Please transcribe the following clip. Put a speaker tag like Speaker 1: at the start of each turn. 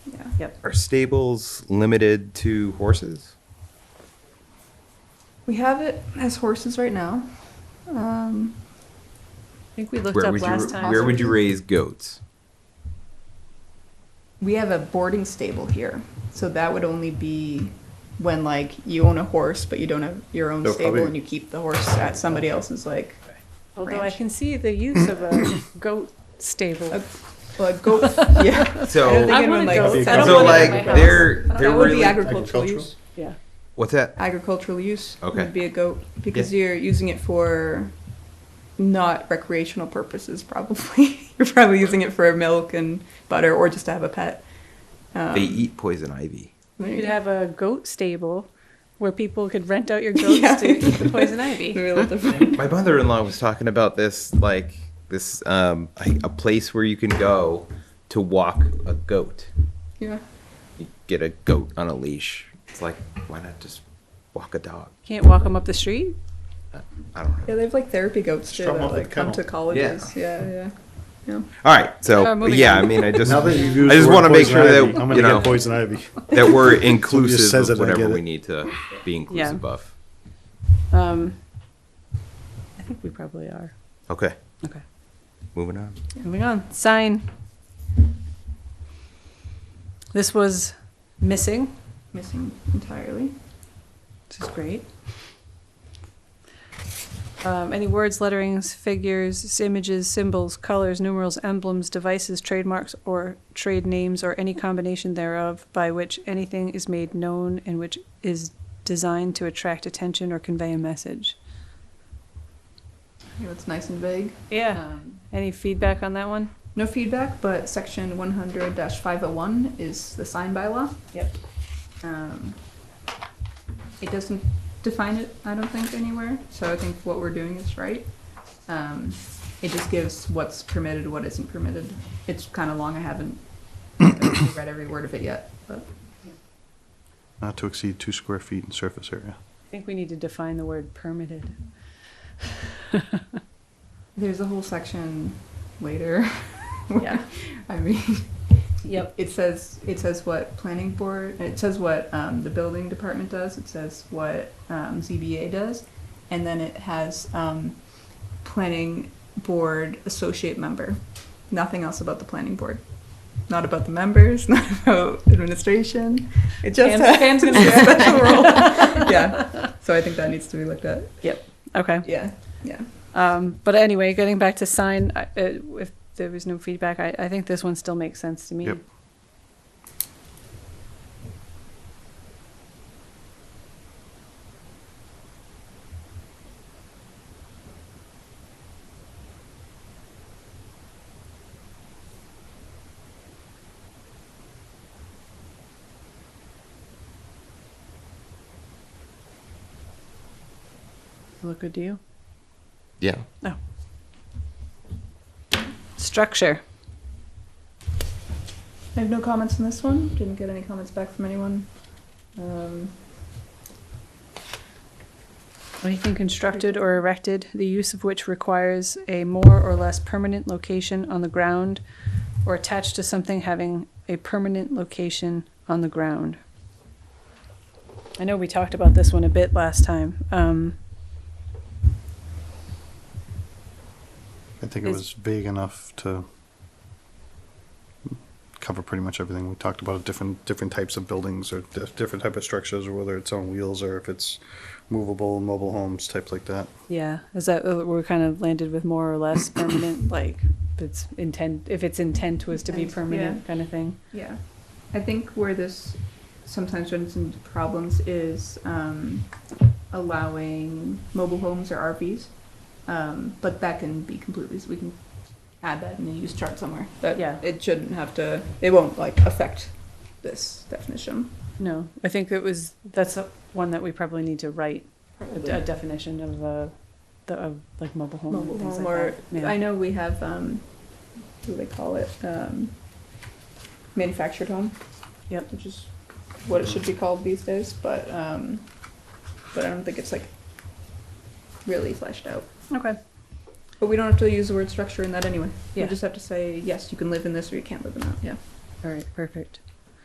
Speaker 1: Yep.
Speaker 2: Are stables limited to horses?
Speaker 1: We have it as horses right now. Um,
Speaker 3: I think we looked
Speaker 2: Where
Speaker 3: up
Speaker 2: would you,
Speaker 3: last time.
Speaker 2: where would you raise goats?
Speaker 1: we have a boarding stable here, so that would only be when like you own a horse, but you don't have your own
Speaker 4: So
Speaker 1: stable
Speaker 4: probably-
Speaker 1: and you keep the horse at somebody
Speaker 2: Oh.
Speaker 1: else's like
Speaker 3: Although I
Speaker 1: ranch.
Speaker 3: can see the use of a goat stable.
Speaker 1: a, well, a goat. yeah. I don't
Speaker 2: So,
Speaker 1: think
Speaker 3: I
Speaker 1: anyone
Speaker 3: want a
Speaker 1: likes
Speaker 3: goat.
Speaker 4: that.
Speaker 3: I don't
Speaker 2: so
Speaker 3: want it
Speaker 2: like
Speaker 3: in my house.
Speaker 2: they're
Speaker 1: that
Speaker 2: they're
Speaker 1: would be
Speaker 2: really
Speaker 1: agricultural use.
Speaker 3: Yeah.
Speaker 2: what's that?
Speaker 1: Agricultural use
Speaker 2: Okay.
Speaker 1: would be a goat because you're using it for not recreational purposes. Probably you're probably using it for milk and butter, or just to have a pet. Um,
Speaker 2: They eat poison ivy.
Speaker 1: there you
Speaker 3: You'd
Speaker 1: go.
Speaker 3: have a goat stable where people could rent out your goats
Speaker 1: Yeah.
Speaker 3: to the poison ivy.
Speaker 1: Really different.
Speaker 2: My mother-in-law was talking about this like this um I- a place where you can go to walk a goat.
Speaker 1: yeah.
Speaker 2: You get a goat on a leash. It's like why not just walk a dog?
Speaker 3: Can't walk them up the street.
Speaker 2: I don't know.
Speaker 1: Yeah, they have like therapy goats too
Speaker 4: Strum
Speaker 1: that
Speaker 4: up the
Speaker 1: like come to
Speaker 4: kennel.
Speaker 1: colleges. Yeah, yeah. yeah.
Speaker 2: All right. So
Speaker 3: Uh, moving
Speaker 2: yeah,
Speaker 3: on.
Speaker 2: I mean I just
Speaker 4: Now that you've used
Speaker 2: I just
Speaker 4: the word
Speaker 2: wanna make
Speaker 4: poison
Speaker 2: sure that,
Speaker 4: ivy, I'm gonna
Speaker 2: you
Speaker 4: get
Speaker 2: know-
Speaker 4: poison ivy.
Speaker 2: that we're inclusive
Speaker 4: says
Speaker 2: of
Speaker 4: it, I
Speaker 2: whatever
Speaker 4: get
Speaker 2: we
Speaker 4: it.
Speaker 2: need to be inclusive of.
Speaker 3: Um, I think we probably are.
Speaker 2: Okay.
Speaker 3: Okay.
Speaker 2: Moving on.
Speaker 3: Moving on. Sign. This was missing,
Speaker 1: Missing entirely.
Speaker 3: which is great. Um, any words, letterings, figures, images, symbols, colors, numerals, emblems, devices, trademarks, or trade names, or any combination thereof by which anything is made known and which is designed to attract attention or convey a message.
Speaker 1: You know, it's nice and vague.
Speaker 3: Yeah.
Speaker 1: Um,
Speaker 3: Any feedback on that one?
Speaker 1: no feedback, but section 100 501 is the sign bylaw.
Speaker 3: Yep.
Speaker 1: Um, it doesn't define it, I don't think, anywhere. So I think what we're doing is right. Um, it just gives what's permitted, what isn't permitted. It's kind of long. I haven't read every word of it yet. But
Speaker 4: Not to exceed two square feet in surface area.
Speaker 3: I think we need to define the word permitted.
Speaker 1: there's a whole section later.
Speaker 3: Yeah.
Speaker 1: I mean,
Speaker 3: Yep.
Speaker 1: It says, it says what planning board, it says what um, the building department does, it says what um, ZBA does, and then it has um, planning board associate member. Nothing else about the planning board. Not about the members, not about administration. It just
Speaker 3: And-
Speaker 1: has
Speaker 3: and-
Speaker 1: a special role. Yeah, so I think that needs to be looked at.
Speaker 3: Okay.
Speaker 1: Yeah, yeah.
Speaker 3: Um, but anyway, getting back to sign, I- uh, if there was no feedback, I, I think this one still makes sense to me.
Speaker 4: Yep.
Speaker 3: Look good to you.
Speaker 2: Yeah.
Speaker 3: Structure.
Speaker 1: I have no comments on this one. Didn't get any comments back from anyone. Um,
Speaker 3: Anything constructed or erected, the use of which requires a more or less permanent location on the ground or attached to something having a permanent location on the ground. I know we talked about this one a bit last time. Um,
Speaker 4: I think it
Speaker 3: Is-
Speaker 4: was vague enough to cover pretty much everything. We talked about different, different types of buildings or di- different type of structures, or whether it's on wheels or if it's movable, mobile homes, types like that.
Speaker 3: Yeah, is that uh, we're kind of landed with more or less permanent, like if it's intent, if its intent was to be
Speaker 1: Intent,
Speaker 3: permanent, kind of thing.
Speaker 1: Yeah, I think where this sometimes runs into problems is um, allowing mobile homes or RVs, um, but that can be completely. So we can add that in the use chart somewhere. That
Speaker 3: Yeah.
Speaker 1: it shouldn't have to. It won't like affect this definition.
Speaker 3: No, I think it was that's a, one that we probably need to write a, d- a definition of uh, the of like mobile home,
Speaker 1: Mobile
Speaker 3: and things
Speaker 1: home,
Speaker 3: like
Speaker 1: or
Speaker 3: that. Yeah.
Speaker 1: I know we have. Um, what do they call it? Um, manufactured home.
Speaker 3: Yep.
Speaker 1: Which is what it should be called these days, but um, but I don't think it's like really fleshed out.
Speaker 3: Okay.
Speaker 1: But we don't have to use the word structure in that anyway.
Speaker 3: Yeah.
Speaker 1: We just have to say yes, you can live in this or you can't live in that. Yeah.
Speaker 3: All right. Perfect.